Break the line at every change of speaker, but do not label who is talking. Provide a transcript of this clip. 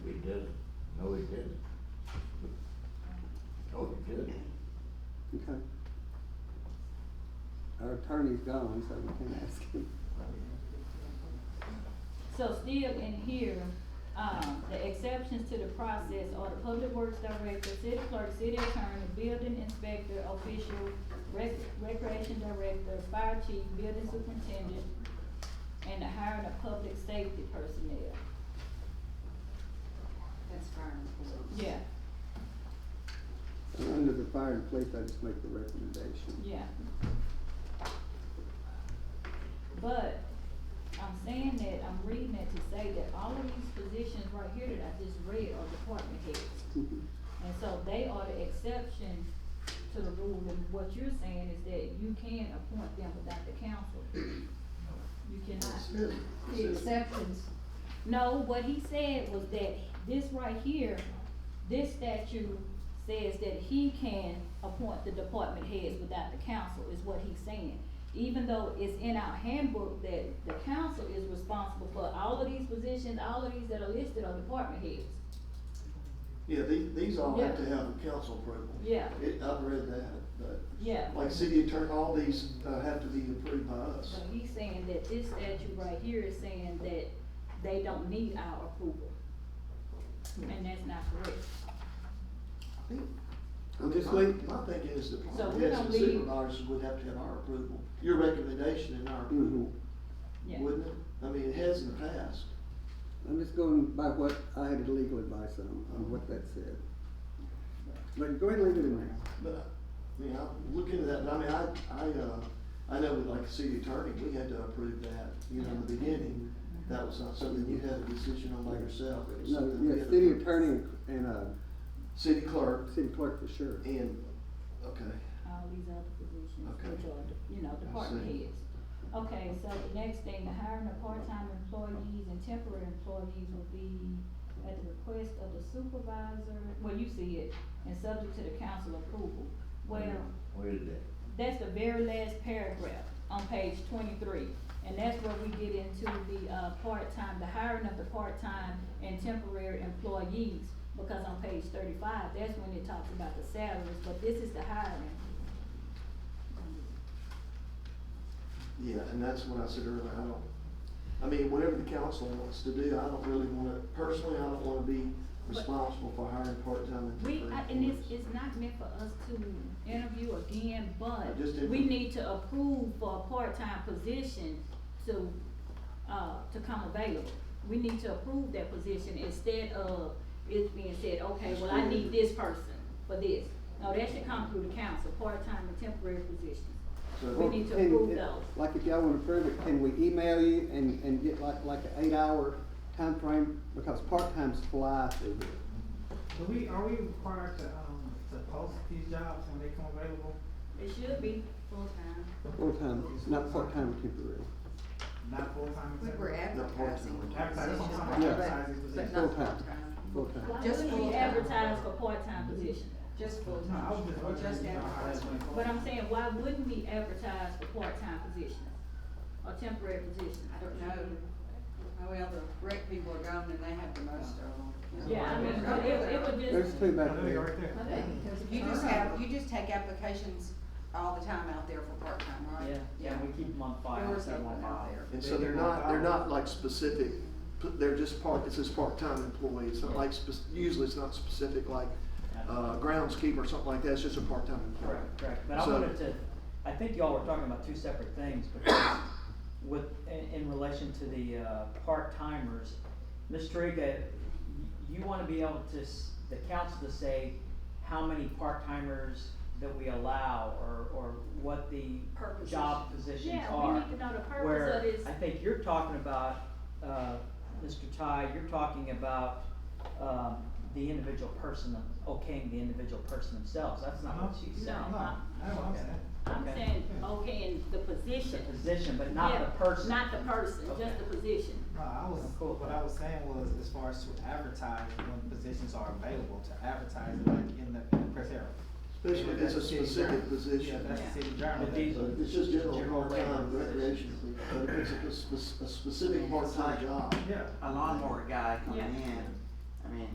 No, it didn't. No, it didn't.
Okay. Our attorney's gone, so we can ask him.
So still in here, um, the exceptions to the process are the public works director, city clerk, city attorney, building inspector, official, rec- recreation director, fire chief, building superintendent, and the hiring of public safety personnel.
That's fire employees.
Yeah,
And under the fire and police, I just make the recommendation.
yeah. But I'm saying that, I'm reading it to say that all of these positions right here that I just read are department heads.
Mhm.
And so they are the exception to the rule, and what you're saying is that you can appoint them without the council. You cannot.
The exceptions,
No, what he said was that this right here, this statute says that he can appoint the department heads without the council, is what he's saying. Even though it's in our handbook that the council is responsible for all of these positions, all of these that are listed are department heads.
Yeah, these, these all have to
Yeah.
have a council approval.
Yeah,
It, I've read that, but
yeah.
like city attorney, all these, uh, have to be approved by us.
So he's saying that this statute right here is saying that they don't need our approval. And that's not correct.
Well, just leave- My thing is that
So we're
heads
gonna
and
leave-
supervisors would have to have our approval, your recommendation and our
Mm-hmm.
approval,
Mm-hmm. Yeah.
wouldn't it? I mean, it has in the past.
I'm just going by what I had legal advice on, on what that said. But go ahead and leave it in there.
But, I mean, I look into that, and I mean, I, I, uh, I know with like the city attorney, we had to approve that, you know, in the beginning. That was not something you had a decision on by yourself, it was
No,
something. we
yeah,
had to-
city attorney and, uh,
City clerk
city clerk for sure.
and, okay,
All these other positions, which
Okay.
are, you know, department
see.
heads. Okay, so the next thing, the hiring of part-time employees and temporary employees will be at the request of the supervisor, well, you see it, and subject to the council approval. Well,
Where is that?
That's the very last paragraph on page twenty-three, and that's where we get into the, uh, part-time, the hiring of the part-time and temporary employees, because on page thirty-five, that's when it talks about the salaries, but this is the hiring.
yeah, and that's what I said earlier, I don't, I mean, whatever the council wants to do, I don't really wanna, personally, I don't wanna be responsible for hiring part-time and
We,
temporary.
I- and it's,
employees.
it's not meant for us to interview again, but
Just
we
interview.
need to approve for a part-time position to, uh, to come available. We need to approve that position instead of it being said, okay, well, I need this person for this. No, that should come through the council, part-time and temporary positions. We
So,
need to
Can-
approve those.
Like if y'all wanna approve it, can we email you and, and get like, like an eight-hour time frame Because part-times fly through here.
Do we, are we required to, um, to post these jobs when they come available?
It should be,
full-time,
Full-time, not part-time, temporary.
Not full-time?
we were advertising.
part-time.
Advertising, that's what I'm
Yeah.
positions,
advertising
but-
positions.
But not
Full-time.
full-time,
Full-time.
why
Just
would we
full-time.
advertise for part-time positions?
just
No, I was
full-time,
just
or
wondering,
just
you know, how that's
advertising.
gonna go.
But I'm saying, why wouldn't we advertise for part-time positions or temporary positions?
I don't know, oh, well, the rec people are gone and they have the most of them.
Yeah, I mean, it, it would just.
There's two back
Let me go
there.
right
Okay.
there.
You just have, you just take applications all the time out there for part-time, right?
Yeah, we keep them on file,
Doors
keep them on
open out
file.
there.
and so they're not, they're not like specific, they're just part, it says part-time employee, it's not like, spec- usually it's not specific like, uh, groundskeeper or something like that, it's just a part-time employee.
Correct, correct, but I
So-
wanted to, I think y'all were talking about two separate things, because with, in, in relation to the, uh, part-timers, Ms. Triga, you, you wanna be able to, s- the council to say how many part-timers that we allow, or, or what the
Per position.
job positions
Yeah,
are.
we need to know the purpose of
Where
this.
I think you're talking about, uh, Mr. Ty, you're talking about, um, the individual person, okaying the individual person themselves, that's not what
No.
she's
No.
saying.
No, I know what I'm saying.
I'm
Okay.
saying, okay, in the
The
position.
position, but not
Yeah,
the person.
Not the person, just
Okay.
the position.
No, I was,
Cool.
what I was saying was, as far as to advertise when positions are available, to advertise it like in the, in the press area.
Especially if it's a
That's the city
specific
journal.
position.
Yeah, that's the city journal.
But these are-
It's just general
General
part-time
labor.
recreation, but if it's a, spec- a specific part-time job.
Yeah.
a lawnmower guy coming
Yeah.
in,